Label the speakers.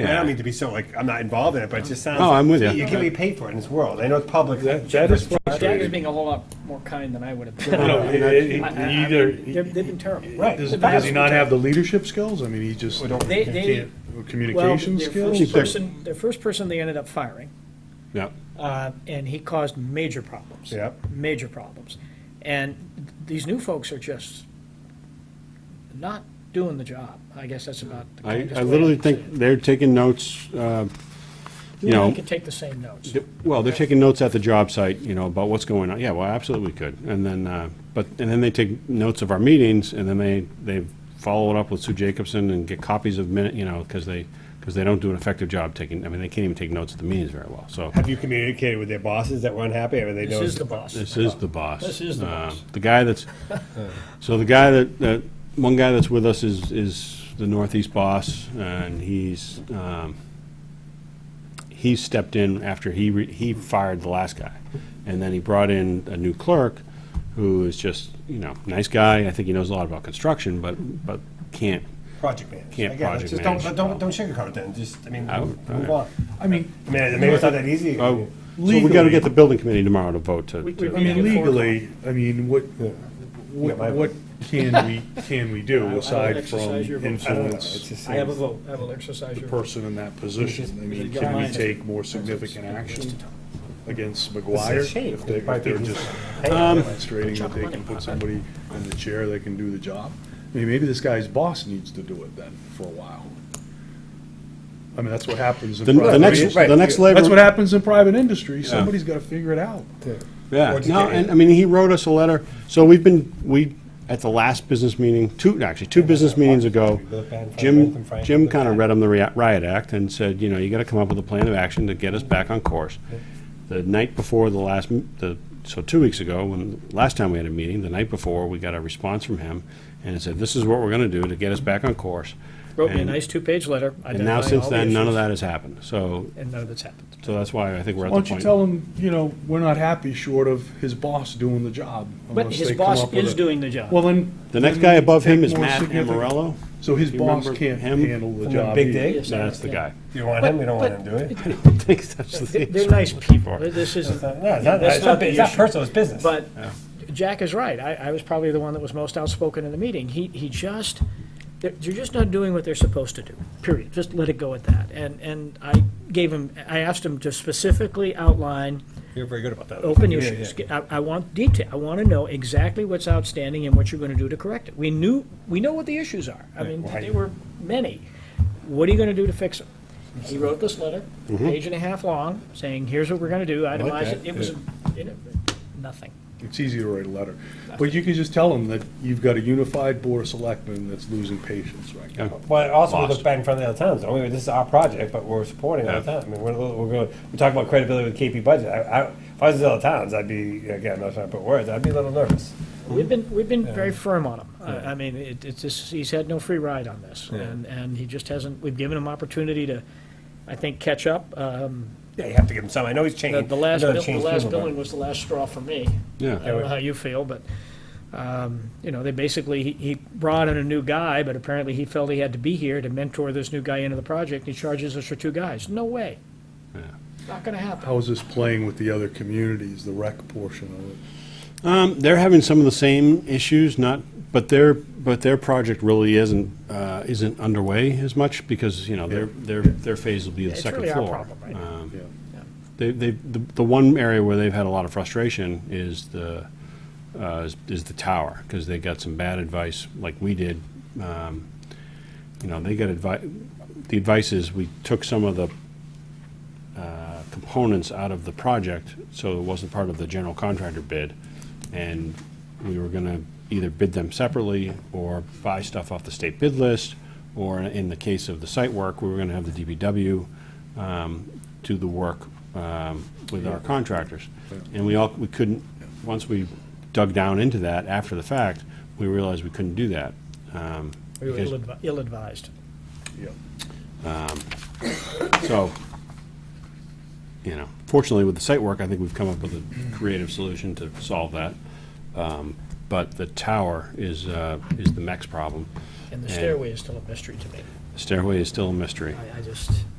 Speaker 1: I
Speaker 2: Yeah.
Speaker 1: don't mean to be so, like, I'm not involved in it, but it just sounds.
Speaker 2: No,
Speaker 1: like
Speaker 2: I'm with you.
Speaker 1: You can be paid for it in this world. I know it's public.
Speaker 3: That, that is
Speaker 4: Jack is
Speaker 3: frustrating.
Speaker 4: being a whole lot more kind than I would have
Speaker 3: You
Speaker 4: been.
Speaker 3: know, it- it-
Speaker 4: I- I- I-
Speaker 3: either-
Speaker 4: They've they've been terrible.
Speaker 1: Right.
Speaker 3: Does
Speaker 4: The
Speaker 3: does
Speaker 4: vast
Speaker 3: he not have
Speaker 4: majority-
Speaker 3: the leadership skills? I mean, he just
Speaker 1: We don't-
Speaker 4: They, they,
Speaker 3: can't, uh,
Speaker 4: well,
Speaker 3: communication
Speaker 4: their
Speaker 3: skills?
Speaker 4: first person, their first person they ended up firing,
Speaker 2: Yeah.
Speaker 4: uh, and he caused major problems.
Speaker 1: Yep.
Speaker 4: Major problems. And these new folks are just not doing the job. I guess that's about the
Speaker 2: I,
Speaker 4: kindest
Speaker 2: I
Speaker 4: way
Speaker 2: literally
Speaker 4: can say
Speaker 2: think
Speaker 4: it.
Speaker 2: they're taking notes, uh, you
Speaker 4: You
Speaker 2: know,
Speaker 4: can take the same notes.
Speaker 2: th- well, they're taking notes at the job site, you know, about what's going on. Yeah, well, absolutely we could. And then, uh, but, and then they take notes of our meetings and then they, they follow it up with Sue Jacobson and get copies of minute, you know, because they, because they don't do an effective job taking, I mean, they can't even take notes at the meetings very well, so.
Speaker 1: Have you communicated with their bosses that were unhappy or they
Speaker 4: This
Speaker 1: know?
Speaker 4: is the boss.
Speaker 2: This is the boss.
Speaker 4: This is the
Speaker 2: Uh,
Speaker 4: boss.
Speaker 2: The guy that's, so the guy that, that, one guy that's with us is, is the Northeast boss, and he's, um, he stepped in after he, re- he fired the last guy. And then he brought in a new clerk, who is just, you know, nice guy, I think he knows a lot about construction, but, but can't,
Speaker 1: Project manager.
Speaker 2: Can't
Speaker 1: I get it.
Speaker 2: project
Speaker 1: Just don't,
Speaker 2: manage.
Speaker 1: but don't, don't sugarcoat it then. Just, I mean,
Speaker 2: I would-
Speaker 1: move on.
Speaker 3: I mean,
Speaker 1: I mean, maybe it's not that easy.
Speaker 2: oh, so we gotta get the building committee tomorrow to vote to.
Speaker 4: We-
Speaker 2: to-
Speaker 3: I mean,
Speaker 4: Yeah.
Speaker 3: legally, I mean, what,
Speaker 1: Yeah, my-
Speaker 3: what, what can we, can we
Speaker 4: I
Speaker 3: do
Speaker 4: will
Speaker 3: aside from
Speaker 4: exercise your vote.
Speaker 1: I don't know. It's
Speaker 3: influence
Speaker 1: just-
Speaker 4: I have a vote. I will exercise
Speaker 3: the
Speaker 4: your.
Speaker 3: person in that position? I mean,
Speaker 4: Yeah.
Speaker 3: can we
Speaker 4: Mine.
Speaker 3: take more significant action against
Speaker 1: It's a
Speaker 3: McGuire?
Speaker 1: shame.
Speaker 3: If they-
Speaker 1: It might
Speaker 3: if they're
Speaker 1: be-
Speaker 3: just
Speaker 1: Hey,
Speaker 3: demonstrating that they can put somebody in the chair that can do the job? I mean, maybe this guy's boss needs to do it then for a while. I mean, that's what happens in
Speaker 2: The, the
Speaker 3: private
Speaker 2: next,
Speaker 3: industry.
Speaker 2: the next labor.
Speaker 3: That's what happens in private industry. Somebody's gotta figure it out.
Speaker 2: Yeah,
Speaker 1: What'd you
Speaker 2: no,
Speaker 1: get?
Speaker 2: and, I mean, he wrote us a letter, so we've been, we, at the last business meeting, two, actually, two business meetings ago, Jim, Jim kind of read him the ria- riot act and said, you know, you gotta come up with a plan of action to get us back on course. The night before the last, m- the, so two weeks ago, when, last time we had a meeting, the night before, we got a response from him, and it said, this is what we're gonna do to get us back on course.
Speaker 4: Wrote me a
Speaker 2: And-
Speaker 4: nice two-page letter.
Speaker 2: And now,
Speaker 4: identifying
Speaker 2: since
Speaker 4: all the
Speaker 2: then, none of
Speaker 4: issues,
Speaker 2: that has happened, so,
Speaker 4: And none of it's happened.
Speaker 2: so that's why I think we're at
Speaker 3: Why
Speaker 2: the
Speaker 3: don't you
Speaker 2: point.
Speaker 3: tell him, you know, we're not happy short of his boss doing the job.
Speaker 4: But
Speaker 3: unless
Speaker 4: his
Speaker 3: they come
Speaker 4: boss
Speaker 3: up with
Speaker 4: is
Speaker 3: a-
Speaker 4: doing the job.
Speaker 3: Well, then.
Speaker 2: The next
Speaker 3: then
Speaker 2: guy above him
Speaker 3: take
Speaker 2: is
Speaker 3: more
Speaker 2: Matt
Speaker 3: significant-
Speaker 2: Amorello.
Speaker 3: So his
Speaker 2: Do you
Speaker 3: boss
Speaker 2: remember
Speaker 3: can't
Speaker 2: him?
Speaker 3: handle the
Speaker 1: From the
Speaker 3: job.
Speaker 1: Big
Speaker 3: either.
Speaker 1: Dig?
Speaker 4: Yes, I
Speaker 2: That's the guy.
Speaker 4: understand.
Speaker 1: Do you want him? We don't want him, do we?
Speaker 2: I don't think that's the
Speaker 4: They- They're nice people. They're- This isn't,
Speaker 1: No, it's not,
Speaker 4: That's
Speaker 1: it's
Speaker 4: not
Speaker 1: not,
Speaker 4: the
Speaker 1: it's not
Speaker 4: issue.
Speaker 1: personal, it's business.
Speaker 4: But Jack is right. I, I was probably the one that was most outspoken in the meeting. He, he just, they're, they're just not doing what they're supposed to do, period. Just let it go at that. And, and I gave him, I asked him to specifically outline
Speaker 1: You're very good about that.
Speaker 4: open
Speaker 1: Yeah,
Speaker 4: issues.
Speaker 1: yeah.
Speaker 4: I, I want detail. I want to know exactly what's outstanding and what you're going to do to correct it. We knew, we know what the issues are. I mean,
Speaker 1: Right.
Speaker 4: there were many. What are you going to do to fix them? He wrote this letter, page and a half long, saying, here's what we're going to do, itemize
Speaker 1: Mm-hmm.
Speaker 4: it.
Speaker 1: that,
Speaker 4: It was, you know, nothing.
Speaker 3: It's easy to write a letter. But you can just tell him that you've got a unified board of selectmen that's losing patience right now.
Speaker 1: Well, also, we
Speaker 2: Lost.
Speaker 1: look bad in front of the other towns, don't we? This is our project, but we're supporting other towns. I mean, we're, a little- we're going, we talk about credibility with KP budget. I, I, if I was in other towns, I'd be, again, I'm not trying to put words, I'd be a little nervous. Mm-hmm.
Speaker 4: We've been, we've been very firm on him. I I mean, it- it's just, he's had no free ride on this, and, and he just hasn't, we've given him opportunity to, I think, catch up. Um,
Speaker 1: Yeah, you have to give them some. I know he's
Speaker 4: The
Speaker 1: changed.
Speaker 4: the last,
Speaker 1: I know
Speaker 4: bill-
Speaker 1: he's
Speaker 4: the
Speaker 1: changed
Speaker 4: last
Speaker 1: people, but-
Speaker 4: billing was the last straw for me.
Speaker 2: Yeah.
Speaker 4: I don't know how you feel, but, um, you know, they basically, he- he brought in a new guy, but apparently he felt he had to be here to mentor this new guy into the project, and he charges us for two guys. No way. Not gonna happen.
Speaker 3: How is this playing with the other communities, the rec portion of it?
Speaker 2: Um, they're having some of the same issues, not, but their, but their project really isn't, uh, isn't underway as much because, you know, their, their, their phase will be the
Speaker 4: It's
Speaker 2: second
Speaker 4: really our
Speaker 2: floor.
Speaker 4: problem right now.
Speaker 2: Um,
Speaker 3: Yeah.
Speaker 2: They, they, the, the one area where they've had a lot of frustration is the, uh, is, is the tower, because they got some bad advice, like we did. Um, you know, they got advice, the advice is we took some of the, uh, components out of the project, so it wasn't part of the general contractor bid. And we were gonna either bid them separately or buy stuff off the state bid list, or in the case of the site work, we were gonna have the DBW um, do the work um, with our contractors. And we all, we couldn't, once we dug down into that after the fact, we realized we couldn't do that. um,
Speaker 4: We were
Speaker 2: because-
Speaker 4: ill-advi- ill-advised.
Speaker 3: Yeah.
Speaker 2: So, you know, fortunately with the site work, I think we've come up with a creative solution to solve that. Um, But the tower is, uh, is the next problem.
Speaker 4: And the
Speaker 2: And-
Speaker 4: stairway is still a mystery to me.
Speaker 2: The stairway is still a mystery.
Speaker 4: I, I just.